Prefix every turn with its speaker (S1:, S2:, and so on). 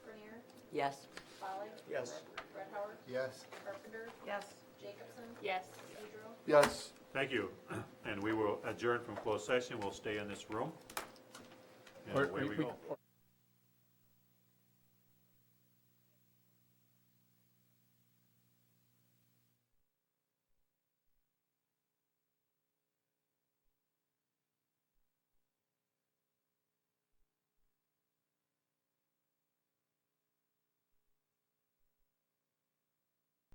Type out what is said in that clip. S1: Yes.
S2: Folly?
S3: Yes.
S2: Red Howard?
S4: Yes.
S2: Carpenter?
S5: Yes.
S2: Jacobson?
S5: Yes.
S2: Pedro?
S4: Yes.
S3: Thank you. And we will adjourn from closed session. We'll stay in this room. And
S6: Or-
S3: away we
S6: we-
S3: go.